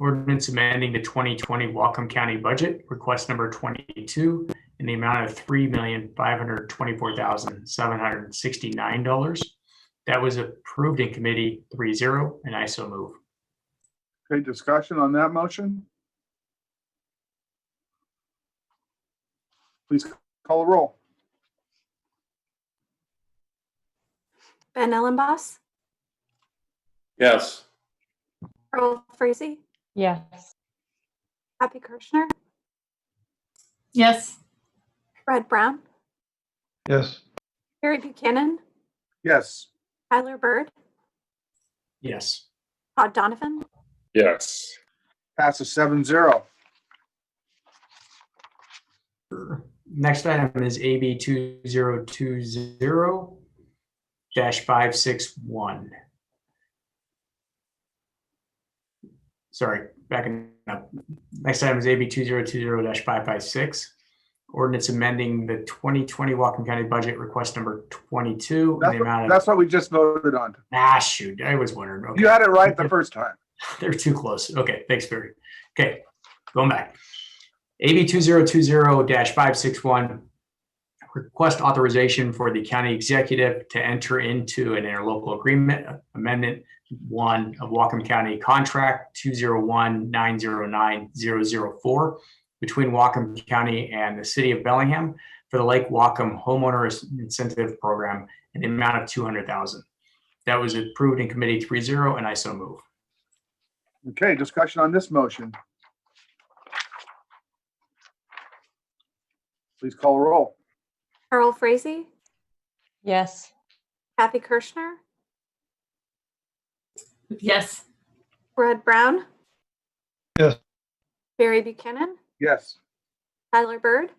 Ordinance amending the 2020 Wacom County budget, request number 22, in the amount of $3,524,769. That was approved in committee 3-0, and I so move. Okay, discussion on that motion? Please call a roll. Ben Ellenboss, Yes. Earl Frazee, Yes. Happy Kirschner, Yes. Red Brown, yes, Harry Buchanan, Yes, Tyler Bird, Yes. Todd Donovan, Yes. passes seven zero. Next item is AB 2020-561. Sorry, backing up. Next item is AB 2020-556. Ordinance amending the 2020 Wacom County Budget Request Number 22. in That's the what- amount of that's what we just voted on. Ah, shoot, I was wondering. You Okay, had it right the first time. They're too close. Okay, thanks, Barry. Okay, going back. AB 2020-561, request authorization for the county executive to enter into an interlocal agreement amendment one of Wacom County Contract 201-909-004 between Wacom County and the City of Bellingham for the Lake Wacom Homeowner Incentive Program in the amount of 200000 That was approved in committee 3-0, and I so move. Okay, discussion on this motion. Please call a roll. Earl Frazee, Yes. Happy Kirschner, Yes. Red Brown, Yes. Barry Buchanan, Yes, Tyler Bird,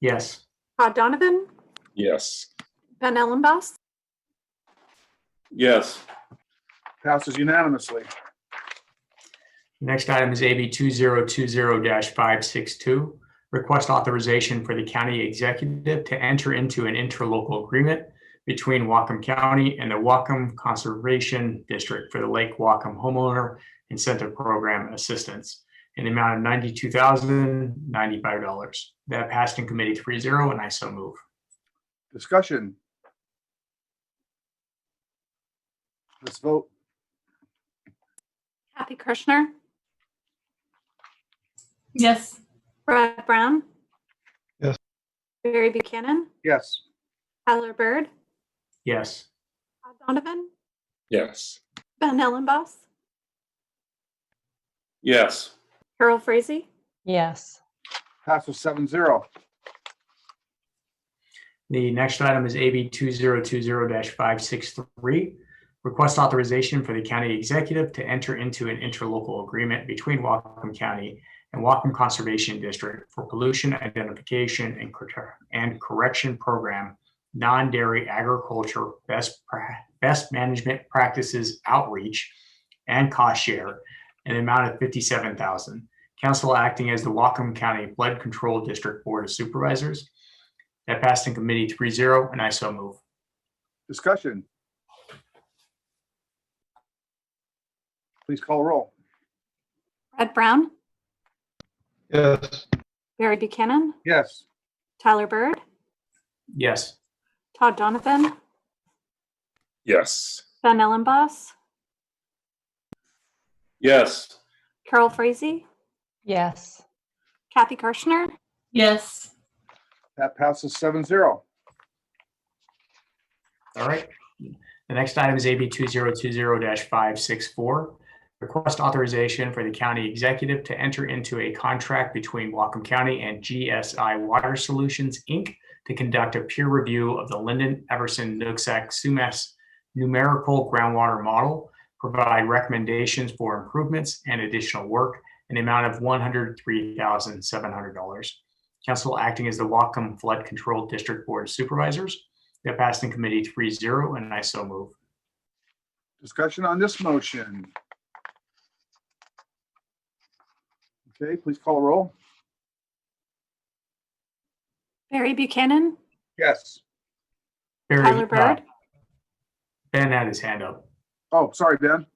Yes. Todd Donovan, Yes. Ben Ellenboss, Yes. passes unanimously. Next item is AB 2020-562, request authorization for the county executive to enter into an interlocal agreement between Wacom County and the Wacom Conservation District for the Lake Wacom Homeowner Incentive Program Assistance in the amount of $92,095. That passed in committee 3-0, and I so move. Discussion. Let's vote. Happy Kirschner, Yes. Red Brown, Yes. Barry Buchanan, Yes, Tyler Bird, Yes. Todd Donovan, Yes. Ben Ellenboss, Yes. Earl Frazee, Yes. passes seven zero. The next item is AB 2020-563, request authorization for the county executive to enter into an interlocal agreement between Wacom County and Wacom Conservation District for pollution identification and cor- and correction program, non-dairy agriculture best pra- best management practices outreach and cost share in the amount of 57000 Council acting as the Wacom County Flood Control District Board of Supervisors. That passed in committee 3-0, and I so move. Discussion. Please call a roll. Red Brown, yes, Barry Buchanan, Yes, Tyler Bird, Yes. Todd Donovan, Yes. Ben Ellenboss, Yes. Carol Frazee, Yes. Kathy Kirschner, Yes. that passes seven zero. All right. The next item is AB 2020-564, request authorization for the county executive to enter into a contract between Wacom County and GSI Water Solutions, Inc. to conduct a peer review of the Linden Everson Nooksack Sumas numerical groundwater model, provide recommendations for improvements and additional work in the amount of $103,700. Council acting as the Wacom Flood Control District Board of Supervisors. That passed in committee 3-0, and I so move. Discussion on this motion. Okay, please call a roll. Barry Buchanan, Yes. Barry, Tyler uh, Bird, Ben had his hand up. Oh, sorry, Ben.